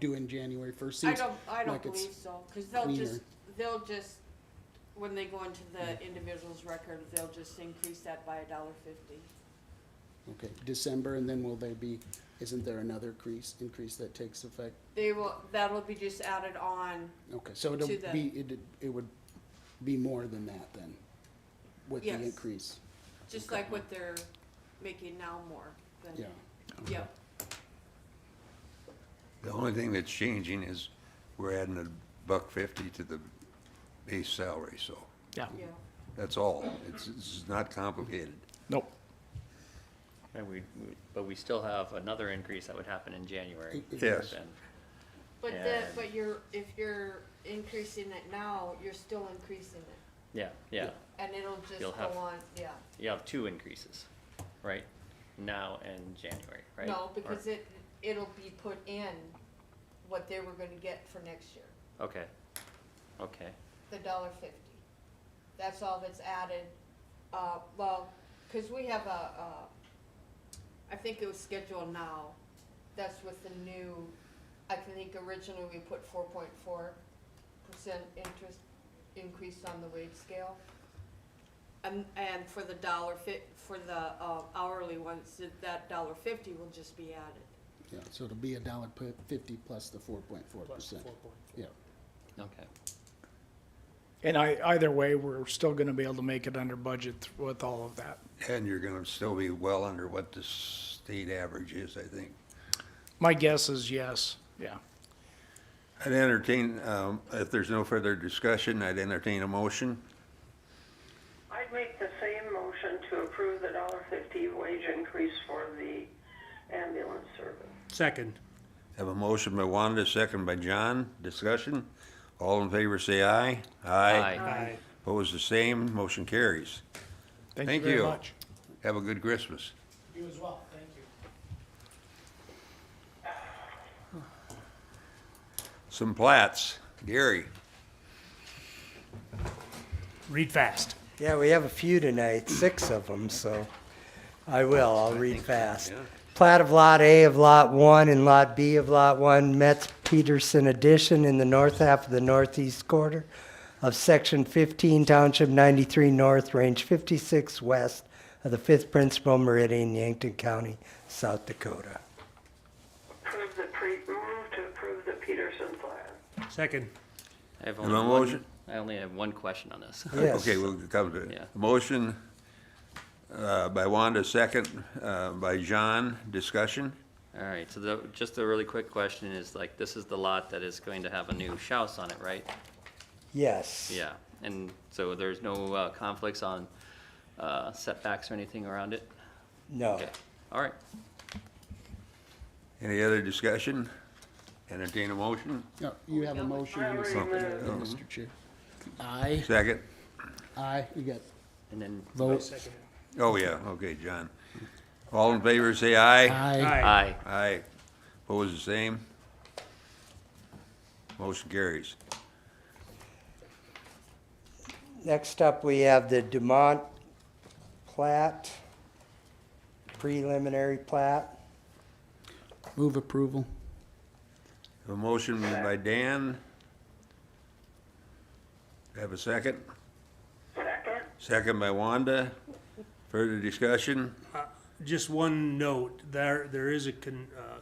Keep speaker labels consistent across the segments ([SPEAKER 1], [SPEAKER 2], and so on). [SPEAKER 1] doing January first.
[SPEAKER 2] I don't, I don't
[SPEAKER 1] like it's
[SPEAKER 2] believe so, cause they'll
[SPEAKER 1] cleaner.
[SPEAKER 2] just, they'll just, when they go into the individual's record, they'll just increase that by a dollar fifty.
[SPEAKER 1] Okay, December, and then will there be, isn't there another crease, increase that takes effect?
[SPEAKER 2] They will, that'll be just added on,
[SPEAKER 1] Okay, so it'll
[SPEAKER 2] To the-
[SPEAKER 1] be, it, it would be more than that then, with the
[SPEAKER 2] Yes.
[SPEAKER 1] increase,
[SPEAKER 2] just like what they're making now more than.
[SPEAKER 1] yeah.
[SPEAKER 2] Yep,
[SPEAKER 3] The only thing that's changing is we're adding a buck fifty to the base salary, so
[SPEAKER 4] Yeah,
[SPEAKER 2] yeah.
[SPEAKER 3] that's all. It's, it's not complicated.
[SPEAKER 4] nope.
[SPEAKER 5] And we, we- but we still have another increase that would happen in January.
[SPEAKER 3] Yes.
[SPEAKER 5] Then.
[SPEAKER 2] But the,
[SPEAKER 5] And-
[SPEAKER 2] but you're, if you're increasing it now, you're still increasing it,
[SPEAKER 5] Yeah, yeah,
[SPEAKER 2] and it'll just
[SPEAKER 5] You'll have-
[SPEAKER 2] go on, yeah.
[SPEAKER 5] you have two increases, right? Now and January, right?
[SPEAKER 2] No,
[SPEAKER 5] Or-
[SPEAKER 2] because it, it'll be put in what they were gonna get for next year.
[SPEAKER 5] Okay, okay,
[SPEAKER 2] the dollar fifty. That's all that's added, uh, well, cause we have a, uh, I think it was scheduled now, that's with the new, I can think originally we put four point four percent interest increase on the wage scale. And, and for the dollar fit, for the, uh, hourly ones, that- that dollar fifty will just be added.
[SPEAKER 1] Yeah, so it'll be a dollar pu- fifty plus the four point four percent. Yeah,
[SPEAKER 5] okay.
[SPEAKER 4] And I, either way, we're still gonna be able to make it under budget with all of that.
[SPEAKER 3] And you're gonna still be well under what the state average is, I think.
[SPEAKER 4] My guess is yes, yeah.
[SPEAKER 3] I'd entertain, um, if there's no further discussion, I'd entertain a motion.
[SPEAKER 6] I'd make the same motion to approve the dollar fifty wage increase for the ambulance service.
[SPEAKER 7] Second.
[SPEAKER 3] Have a motion by Wanda, second by John. Discussion? All in favor, say aye. Aye.
[SPEAKER 7] Aye.
[SPEAKER 3] Opposed, the same. Motion carries.
[SPEAKER 4] Thank
[SPEAKER 3] Thank
[SPEAKER 4] you very
[SPEAKER 3] you.
[SPEAKER 4] much.
[SPEAKER 3] Have a good Christmas.
[SPEAKER 4] You as well, thank you.
[SPEAKER 3] Some plats. Gary.
[SPEAKER 7] Read fast.
[SPEAKER 8] Yeah, we have a few tonight, six of them, so I will, I'll read fast. Plat of Lot A of Lot 1 and Lot B of Lot 1, Metz Peterson addition in the north half of the northeast quarter of Section 15, Township 93 North, Range 56 West of the 5th Principal Meridian, Yankton County, South Dakota.
[SPEAKER 6] Approve the pre, move to approve the Peterson plan.
[SPEAKER 7] Second.
[SPEAKER 5] I have
[SPEAKER 3] Have
[SPEAKER 5] only
[SPEAKER 3] a
[SPEAKER 5] one,
[SPEAKER 3] motion?
[SPEAKER 5] I only have one question on this.
[SPEAKER 8] Yes.
[SPEAKER 3] Okay, we'll come to
[SPEAKER 5] Yeah.
[SPEAKER 3] it. Motion uh, by Wanda, second uh, by John. Discussion?
[SPEAKER 5] All right, so the, just a really quick question is like, this is the lot that is going to have a new house on it, right?
[SPEAKER 8] Yes.
[SPEAKER 5] Yeah, and so there's no uh, conflicts on uh, setbacks or anything around it?
[SPEAKER 8] No.
[SPEAKER 5] Okay, all right.
[SPEAKER 3] Any other discussion? Entertain a motion?
[SPEAKER 1] no, you have a motion and a second,
[SPEAKER 6] Already
[SPEAKER 1] there, Mr. Chair. Aye,
[SPEAKER 3] Second?
[SPEAKER 1] aye, you got
[SPEAKER 5] And then,
[SPEAKER 1] vote,
[SPEAKER 3] Oh, yeah, okay, John. All in favor, say aye.
[SPEAKER 1] aye.
[SPEAKER 5] aye,
[SPEAKER 3] Aye. Opposed, the same? Motion carries.
[SPEAKER 8] Next up, we have the Dumont plat, preliminary plat.
[SPEAKER 1] Move approval,
[SPEAKER 3] A motion by Dan. Have a second?
[SPEAKER 6] Second?
[SPEAKER 3] Second by Wanda. Further discussion?
[SPEAKER 7] Just one note, there, there is a con, uh,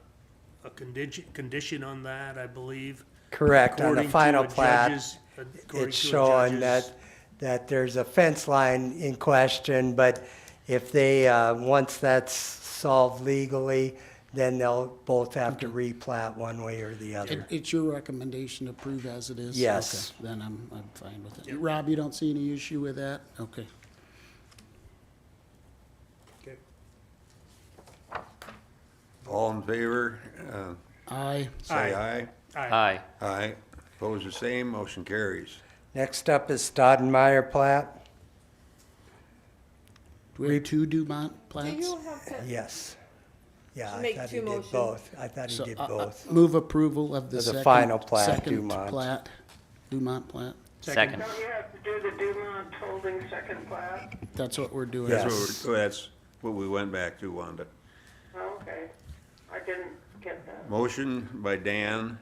[SPEAKER 7] a condition, condition on that, I believe.
[SPEAKER 8] Correct, on
[SPEAKER 7] According
[SPEAKER 8] the
[SPEAKER 7] to
[SPEAKER 8] final
[SPEAKER 7] a
[SPEAKER 8] plat,
[SPEAKER 7] judge's- according to a
[SPEAKER 8] it's showing
[SPEAKER 7] judge's-
[SPEAKER 8] that, that there's a fence line in question, but if they, uh, once that's solved legally, then they'll both have to replat one way or the
[SPEAKER 1] it,
[SPEAKER 8] other.
[SPEAKER 1] it's your recommendation to approve as it is?
[SPEAKER 8] Yes.
[SPEAKER 1] Okay, Then I'm, I'm fine with it. Rob, you don't see any issue with that? Okay.
[SPEAKER 7] Okay.
[SPEAKER 3] All in favor, uh,
[SPEAKER 1] Aye,
[SPEAKER 3] say aye.
[SPEAKER 5] aye,
[SPEAKER 3] Aye. Opposed, the same. Motion carries.
[SPEAKER 8] Next up is Stoddenmeyer plat,
[SPEAKER 1] do we have two Dumont plats?
[SPEAKER 2] Do you have to?
[SPEAKER 8] yes. Yeah, I
[SPEAKER 2] Make
[SPEAKER 8] thought
[SPEAKER 2] two
[SPEAKER 8] he did
[SPEAKER 2] motions.
[SPEAKER 8] both, I thought he
[SPEAKER 1] So,
[SPEAKER 8] did
[SPEAKER 1] uh, uh,
[SPEAKER 8] both.
[SPEAKER 1] Move approval of the
[SPEAKER 8] Of the
[SPEAKER 1] second.
[SPEAKER 8] final plat,
[SPEAKER 1] Second
[SPEAKER 8] Dumont.
[SPEAKER 1] plat, Dumont plat.
[SPEAKER 5] second,
[SPEAKER 6] Don't you have to do the Dumont holding second plat?
[SPEAKER 1] That's what we're doing.
[SPEAKER 8] Yes.
[SPEAKER 3] That's what, we're- that's what we went back to, Wanda.
[SPEAKER 6] Okay, I didn't get that.
[SPEAKER 3] Motion by Dan,